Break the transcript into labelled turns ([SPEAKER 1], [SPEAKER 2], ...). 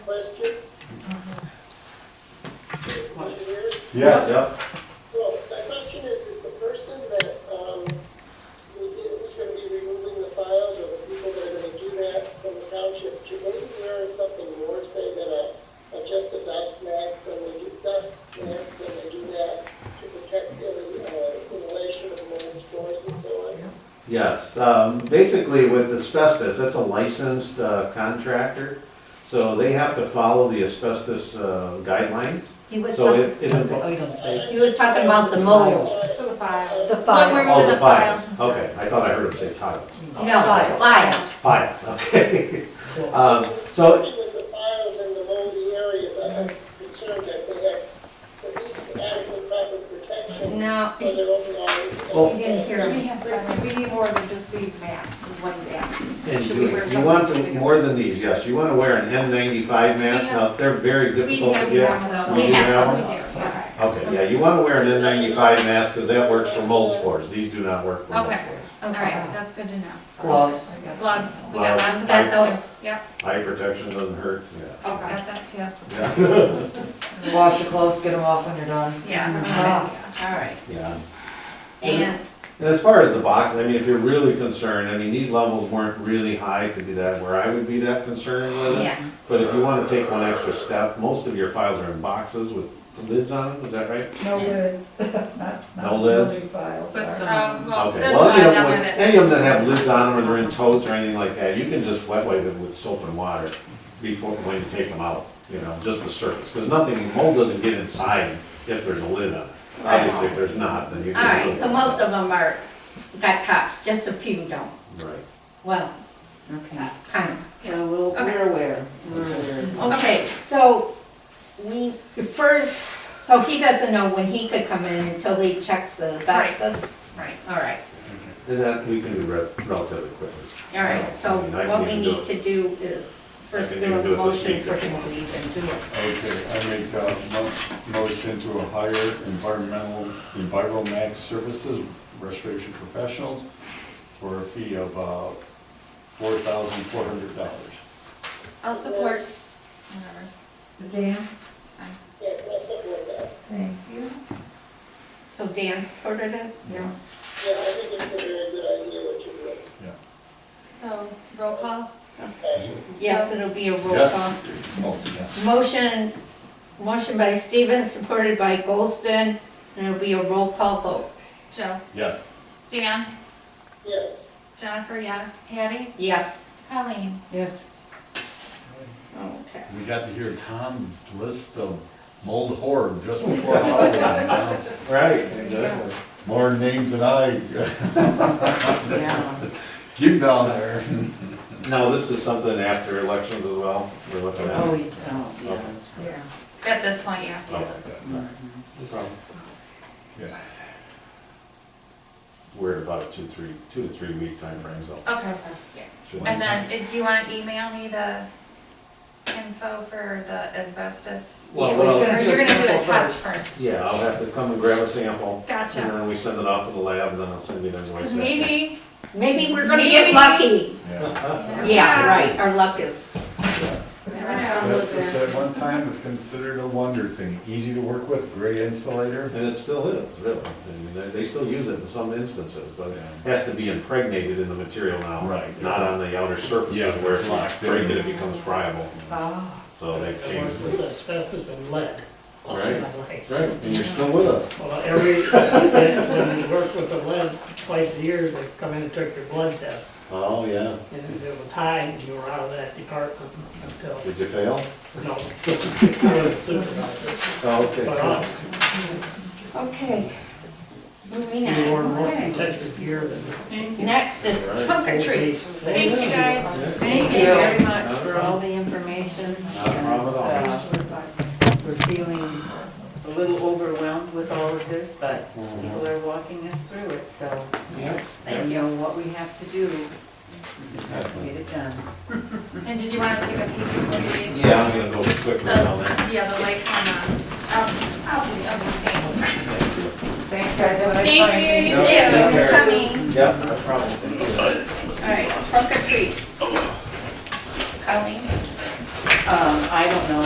[SPEAKER 1] question? Engineer?
[SPEAKER 2] Yes, yep.
[SPEAKER 1] Well, my question is, is the person that, um, who- who's gonna be removing the files or the people that are gonna do that from the township, should they be wearing something more, say, than a, a just a dust mask when they do dust mask when they do that to protect the, uh, inhalation of mold spores and so on?
[SPEAKER 2] Yes, um, basically with asbestos, that's a licensed uh, contractor, so they have to follow the asbestos uh, guidelines.
[SPEAKER 3] He was,
[SPEAKER 2] So
[SPEAKER 3] talking-
[SPEAKER 2] it, it involves.
[SPEAKER 3] he was talking about the molds,
[SPEAKER 4] For the file.
[SPEAKER 3] the
[SPEAKER 4] But
[SPEAKER 3] files.
[SPEAKER 4] we're-
[SPEAKER 2] Oh,
[SPEAKER 4] the
[SPEAKER 2] the
[SPEAKER 4] files
[SPEAKER 2] files,
[SPEAKER 4] and stuff.
[SPEAKER 2] okay, I thought I heard him say tiles.
[SPEAKER 3] No, files.
[SPEAKER 2] Files, okay. Um, so,
[SPEAKER 1] With the files in the moldy areas, I'm concerned that they have at least adequate proper protection
[SPEAKER 3] No,
[SPEAKER 1] for their
[SPEAKER 2] Well-
[SPEAKER 1] overall.
[SPEAKER 3] he didn't hear
[SPEAKER 4] We
[SPEAKER 3] me.
[SPEAKER 4] have- but we need more than just these masks, is what he's asking.
[SPEAKER 2] and
[SPEAKER 4] Should we
[SPEAKER 2] you,
[SPEAKER 4] wear
[SPEAKER 2] you want to,
[SPEAKER 4] something?
[SPEAKER 2] more than these, yes, you wanna wear an N ninety-five mask, now, they're very
[SPEAKER 4] We
[SPEAKER 2] difficult to
[SPEAKER 4] have
[SPEAKER 2] get.
[SPEAKER 4] some of those.
[SPEAKER 2] You
[SPEAKER 3] We have
[SPEAKER 2] have
[SPEAKER 4] We
[SPEAKER 2] them?
[SPEAKER 4] do, yeah.
[SPEAKER 2] Okay, yeah, you wanna wear an N ninety-five mask, cause that works for mold spores, these do not work for mold
[SPEAKER 4] Okay.
[SPEAKER 2] spores.
[SPEAKER 4] All right, that's good to know.
[SPEAKER 3] Gloves.
[SPEAKER 4] Gloves, we got lots of
[SPEAKER 2] Gloves.
[SPEAKER 4] that, too. Yep,
[SPEAKER 2] Eye protection doesn't hurt,
[SPEAKER 4] got that, too.
[SPEAKER 2] yeah.
[SPEAKER 5] Wash your clothes, get them off when you're done.
[SPEAKER 4] Yeah.
[SPEAKER 3] Oh, all right.
[SPEAKER 2] Yeah, yeah.
[SPEAKER 3] And,
[SPEAKER 2] And as far as the box, I mean, if you're really concerned, I mean, these levels weren't really high to be that, where I would be that concerned with it.
[SPEAKER 3] yeah,
[SPEAKER 2] But if you wanna take one extra step, most of your files are in boxes with lids on them, is that right?
[SPEAKER 6] No lids, not,
[SPEAKER 2] No
[SPEAKER 6] not
[SPEAKER 2] lids?
[SPEAKER 6] building files.
[SPEAKER 4] But,
[SPEAKER 6] sorry.
[SPEAKER 4] um, well,
[SPEAKER 2] Okay.
[SPEAKER 4] there's a
[SPEAKER 2] Well,
[SPEAKER 4] lot
[SPEAKER 2] any of
[SPEAKER 4] down
[SPEAKER 2] them,
[SPEAKER 4] there
[SPEAKER 2] with-
[SPEAKER 4] that.
[SPEAKER 2] any of them that have lids on them or they're in totes or anything like that, you can just wet wipe it with soap and water before, when you take them out, you know, just the surface. Because nothing, mold doesn't get inside if there's a lid on it. Obviously, if there's not, then you
[SPEAKER 3] all
[SPEAKER 2] can.
[SPEAKER 3] right, so most of them are, got tops, just a few don't.
[SPEAKER 2] Right.
[SPEAKER 3] Well,
[SPEAKER 5] Okay.
[SPEAKER 3] uh, kind of.
[SPEAKER 5] Yeah, we'll,
[SPEAKER 4] Okay.
[SPEAKER 5] we're aware, we're aware.
[SPEAKER 3] Okay, so we, first, so he doesn't know when he could come in until he checks the asbestos?
[SPEAKER 4] Right.
[SPEAKER 3] All right,
[SPEAKER 2] And that we can do re- relatively quickly.
[SPEAKER 3] all right, so
[SPEAKER 2] I mean, I
[SPEAKER 3] what we
[SPEAKER 2] can even do
[SPEAKER 3] need
[SPEAKER 2] it.
[SPEAKER 3] to do is first
[SPEAKER 2] can
[SPEAKER 3] do
[SPEAKER 2] even do it this
[SPEAKER 3] a motion
[SPEAKER 2] week
[SPEAKER 3] for
[SPEAKER 2] if you
[SPEAKER 3] him to
[SPEAKER 2] want.
[SPEAKER 3] even do it.
[SPEAKER 7] Okay, I make a mo- motion to hire environmental, EnviroMax Services Restoration Professionals for a fee of uh, four thousand four hundred dollars.
[SPEAKER 4] I'll support. Whatever.
[SPEAKER 6] Dan,
[SPEAKER 1] Yes, that's something like that.
[SPEAKER 6] thank you.
[SPEAKER 3] So Dan supported it?
[SPEAKER 6] Yeah.
[SPEAKER 1] Yeah, I think it's a very good idea what you're doing.
[SPEAKER 4] So, roll call?
[SPEAKER 3] Yes, it'll be a roll call.
[SPEAKER 7] Yes? Oh, yes.
[SPEAKER 3] Motion, motion by Stevens, supported by Goldston, and it'll be a roll call vote.
[SPEAKER 4] Joe?
[SPEAKER 7] Yes.
[SPEAKER 4] Dan?
[SPEAKER 1] Yes,
[SPEAKER 4] Jennifer, yes. Patty?
[SPEAKER 3] Yes,
[SPEAKER 4] Colleen?
[SPEAKER 5] Yes.
[SPEAKER 3] okay.
[SPEAKER 7] We got to hear Tom's list of mold horror just before Halloween.
[SPEAKER 2] Right,
[SPEAKER 4] exactly.
[SPEAKER 7] More names than I
[SPEAKER 5] Yeah.
[SPEAKER 7] give down there.
[SPEAKER 2] Now, this is something after elections as well, we're looking at.
[SPEAKER 5] Oh, yeah, oh, yeah.
[SPEAKER 6] Yeah.
[SPEAKER 4] At this point, yeah.
[SPEAKER 2] Oh, okay. No problem.
[SPEAKER 7] Yes.
[SPEAKER 2] We're about a two, three, two to three week timeframe, so.
[SPEAKER 4] Okay.
[SPEAKER 2] shouldn't-
[SPEAKER 4] And then, uh, do you want to email me the info for the asbestos?
[SPEAKER 2] Well,
[SPEAKER 5] Yeah,
[SPEAKER 2] well,
[SPEAKER 5] we're
[SPEAKER 4] Or you're gonna do a
[SPEAKER 5] sample
[SPEAKER 4] test first?
[SPEAKER 2] Yeah, I'll have to come and grab a sample. And
[SPEAKER 4] Gotcha.
[SPEAKER 2] then we send it off to the lab, and then I'll send you the invoice.
[SPEAKER 4] Because maybe,
[SPEAKER 3] Maybe we're
[SPEAKER 4] gonna
[SPEAKER 3] gonna
[SPEAKER 4] get
[SPEAKER 3] get lucky.
[SPEAKER 7] Yeah.
[SPEAKER 3] Yeah, right, our luck is,
[SPEAKER 4] never know.
[SPEAKER 7] Asbestos at one time was considered a wonder thing, easy to work with, great insulator.
[SPEAKER 2] And it still is, really. I mean, they, they still use it in some instances, but it has to be impregnated in the material now.
[SPEAKER 7] Right.
[SPEAKER 2] Not on the outer
[SPEAKER 7] Yeah,
[SPEAKER 2] surfaces
[SPEAKER 7] if
[SPEAKER 2] where
[SPEAKER 7] it's
[SPEAKER 2] if
[SPEAKER 7] locked
[SPEAKER 2] you
[SPEAKER 7] in.
[SPEAKER 2] break it, it becomes friable.
[SPEAKER 4] Oh.
[SPEAKER 5] Ah,
[SPEAKER 2] So they changed
[SPEAKER 6] With asbestos and lead. all
[SPEAKER 2] Right.
[SPEAKER 6] my life.
[SPEAKER 2] Right, and you're still with us.
[SPEAKER 6] Well, every, when you work with the lead, twice a year, they come in and took your blood test.
[SPEAKER 2] Oh, yeah.
[SPEAKER 6] And if it was high, you were out of that department until,
[SPEAKER 2] Did you fail?
[SPEAKER 6] no. I was a supervisor.
[SPEAKER 2] Oh, okay.
[SPEAKER 6] But, uh,
[SPEAKER 3] okay. Moving
[SPEAKER 6] so you were
[SPEAKER 3] on,
[SPEAKER 6] more
[SPEAKER 3] okay.
[SPEAKER 6] protected here than.
[SPEAKER 3] Next is trunk or treat.
[SPEAKER 4] Thanks, you guys.
[SPEAKER 5] Thank
[SPEAKER 4] Thank you
[SPEAKER 5] you.
[SPEAKER 4] very much
[SPEAKER 2] Not a
[SPEAKER 4] for all the information.
[SPEAKER 2] Not a problem
[SPEAKER 5] uh,
[SPEAKER 2] at all.
[SPEAKER 5] we're feeling a little overwhelmed with all of this, but people are walking us through it, so
[SPEAKER 3] Yeah,
[SPEAKER 5] they
[SPEAKER 3] thank you.
[SPEAKER 5] know what we have to do. We Just have to get it done.
[SPEAKER 4] And did you want to take a peek before you leave?
[SPEAKER 2] Yeah, I'm gonna go quickly on that.
[SPEAKER 4] The- Yeah, the lights on, the- oh, oh, okay, thanks.
[SPEAKER 5] Thanks, guys, have a nice time.
[SPEAKER 3] Thank you, you
[SPEAKER 2] Yeah,
[SPEAKER 3] too,
[SPEAKER 2] take
[SPEAKER 3] for
[SPEAKER 2] care.
[SPEAKER 3] coming.
[SPEAKER 2] Yep, no problem.
[SPEAKER 3] All right, trunk or treat. Colleen?
[SPEAKER 5] Um, I don't know